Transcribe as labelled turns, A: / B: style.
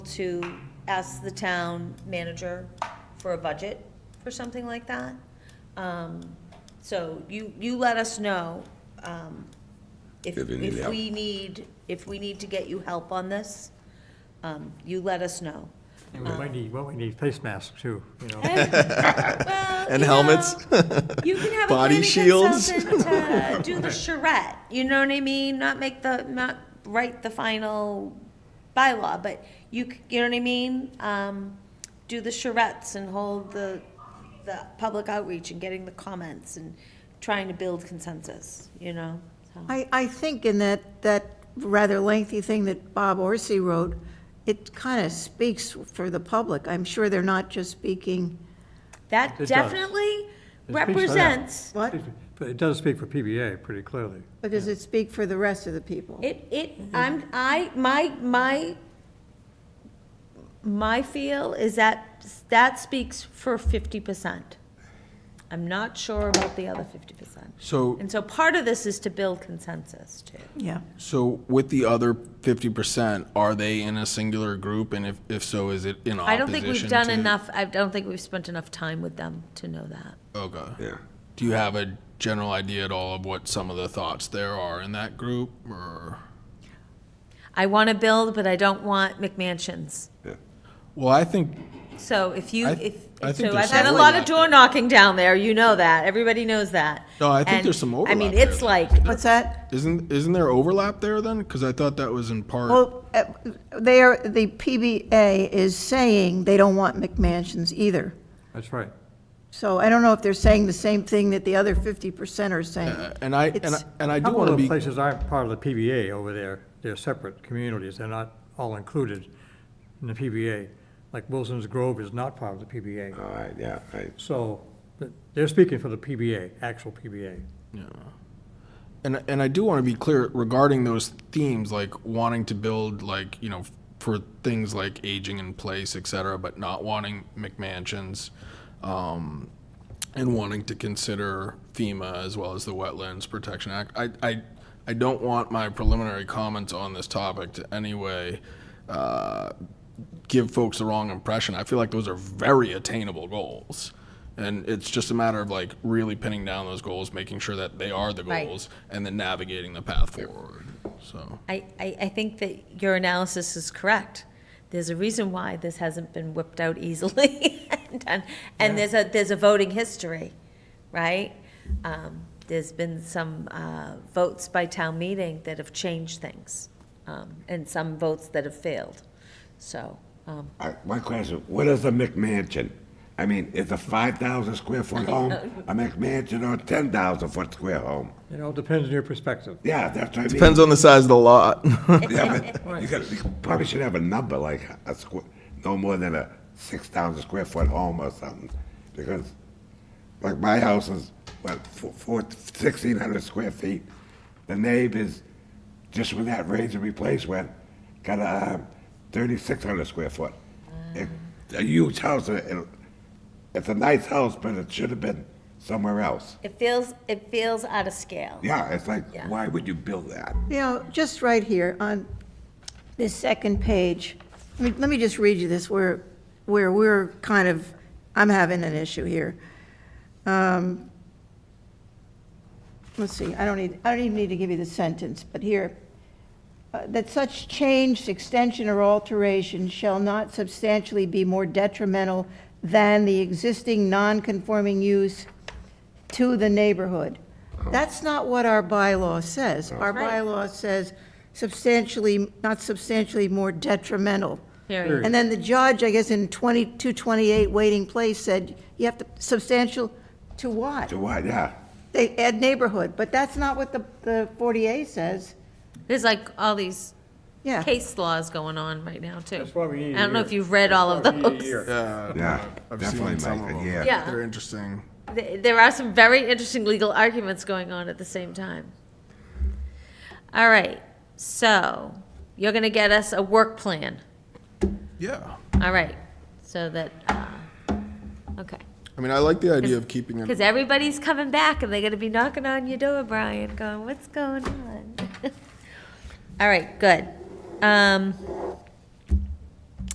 A: to ask the town manager for a budget or something like that. Um, So you, you let us know um, if,
B: If you need
A: if
B: help.
A: we need, if we need to get you help on this, um, you let us know.
C: And we might need, well, we need face masks too, you know.
B: And helmets.
A: You can have a
B: Body
A: planning
B: shields.
A: consultant uh, do the charrette. You know what I mean? Not make the not write the final bylaw, but you c- you know what I mean? Um, do the charrettes and hold the the public outreach and getting the comments and trying to build consensus. You know. So.
D: I, I think in that, that rather lengthy thing that Bob Orsi wrote, it kind of speaks for the public. I'm sure they're not just speaking,
A: That
C: does.
A: definitely
C: It speaks for that.
A: represents.
D: what?
C: But it does speak for PBA pretty clearly.
D: But does it speak for the rest of the people?
A: It, it, I'm, I, my, my, my feel is that, that speaks for fifty percent. I'm not sure about the other fifty percent.
E: So,
A: And so part of this is to build consensus too.
D: Yeah.
E: so with the other fifty percent, are they in a singular group, and if, if so, is it in opposition
A: I don't think we've done
E: to-
A: enough, I don't think we've spent enough time with them to know that.
E: Okay.
B: Yeah.
E: Do you have a general idea at all of what some of the thoughts there are in that group, or?
A: I want to build, but I don't want McMansions.
E: Well, I think
A: So if you,
E: I-
A: if,
E: I think
A: so
E: there's
A: I've had a
E: some
A: lot of
E: overlap
A: door
E: there.
A: knocking down there, you know that, everybody knows that.
E: No, I think
A: And,
E: there's some
A: I mean,
E: overlap there,
A: it's
E: though.
A: like,
D: What's that?
E: isn't isn't there overlap there then? Because I thought that was in part.
D: Well, uh, they are, the PBA is saying they don't want McMansions either.
C: That's right.
D: So I don't know if they're saying the same thing that the other 50% are saying.
E: uh, and I and I,
D: It's-
E: and I
C: A
E: do
C: couple
E: want to
C: of
E: be.
C: the places aren't part of the PBA over there. They're separate communities. They're not all included in the PBA. Like Wilson's Grove is not part of the PBA.
B: All right, yeah, right.
C: So but they're speaking for the PBA, actual PBA.
E: And, and I do want to be clear regarding those themes, like wanting to build, like, you know, for things like aging in place, et cetera, but not wanting McMansions, um, and wanting to consider FEMA as well as the Wetlands Protection Act. I, I, I don't want my preliminary comments on this topic to anyway, uh, give folks the wrong impression. I feel like those are very attainable goals. And it's just a matter of like really pinning down those goals, making sure that they are the
A: Right.
E: goals, and then navigating the path forward. So,
A: I, I, I think that your analysis is correct. There's a reason why this hasn't been whipped out easily and done. And there's a, there's a voting history, right? Um, there's been some, uh, votes by town meeting that have changed things, um, and some votes that have failed. So, um,
B: All right, one question, what is a McMansion? I mean, is a five thousand square foot home a McMansion or ten thousand foot square home?
C: You know, it depends on your perspective.
B: Yeah, that's what I mean.
E: depends on the size of the lot.
B: Yeah, but you gotta, you probably should have a number, like a squ no more than a six thousand square foot home or something, because, like, my house is, what, four, four, sixteen hundred square feet. The neighbors, just with that raise and replace went, got a um, thirty-six hundred square foot. It- A huge house, and it, it's a nice house, but it should have been somewhere else.
A: it feels, it feels out of scale.
B: Yeah, it's like,
A: Yeah.
B: why would you build that?
D: You know, just right here on this second page, I mean, let me just read you this where, where we're kind of, I'm having an issue here. Um, Let's see, I don't need, I don't even need to give you the sentence, but here, uh, that such change, extension, or alteration shall not substantially be more detrimental than the existing non-conforming use to the neighborhood. That's not what our bylaw says. Our
A: Right.
D: bylaw says substantially, not substantially more detrimental.
A: Period.
D: And then the judge, I guess, in 2228 Waiting Place said, you have to, substantial to what?
B: To what, yeah?
D: They add neighborhood, but that's not what the, the 40A says.
A: There's like all these
D: Yeah.
A: case laws going on right now too.
C: That's why we need
A: I don't know
C: a
A: if
C: year.
A: you've read all of
C: That's why we need a
A: those.
C: year.
B: Yeah,
E: I've seen
B: definitely,
E: some
B: Mike,
E: of 'em.
B: yeah.
A: Yeah.
E: They're interesting.
A: Th- There are some very interesting legal arguments going on at the same time. All right, so you're going to get us a work plan.
E: Yeah.
A: All right, so that, uh, okay.
E: I mean, I like the idea of keeping it.
A: Because everybody's coming back and they're going to be knocking on your door, Brian, going, what's going on? All right, good. Um,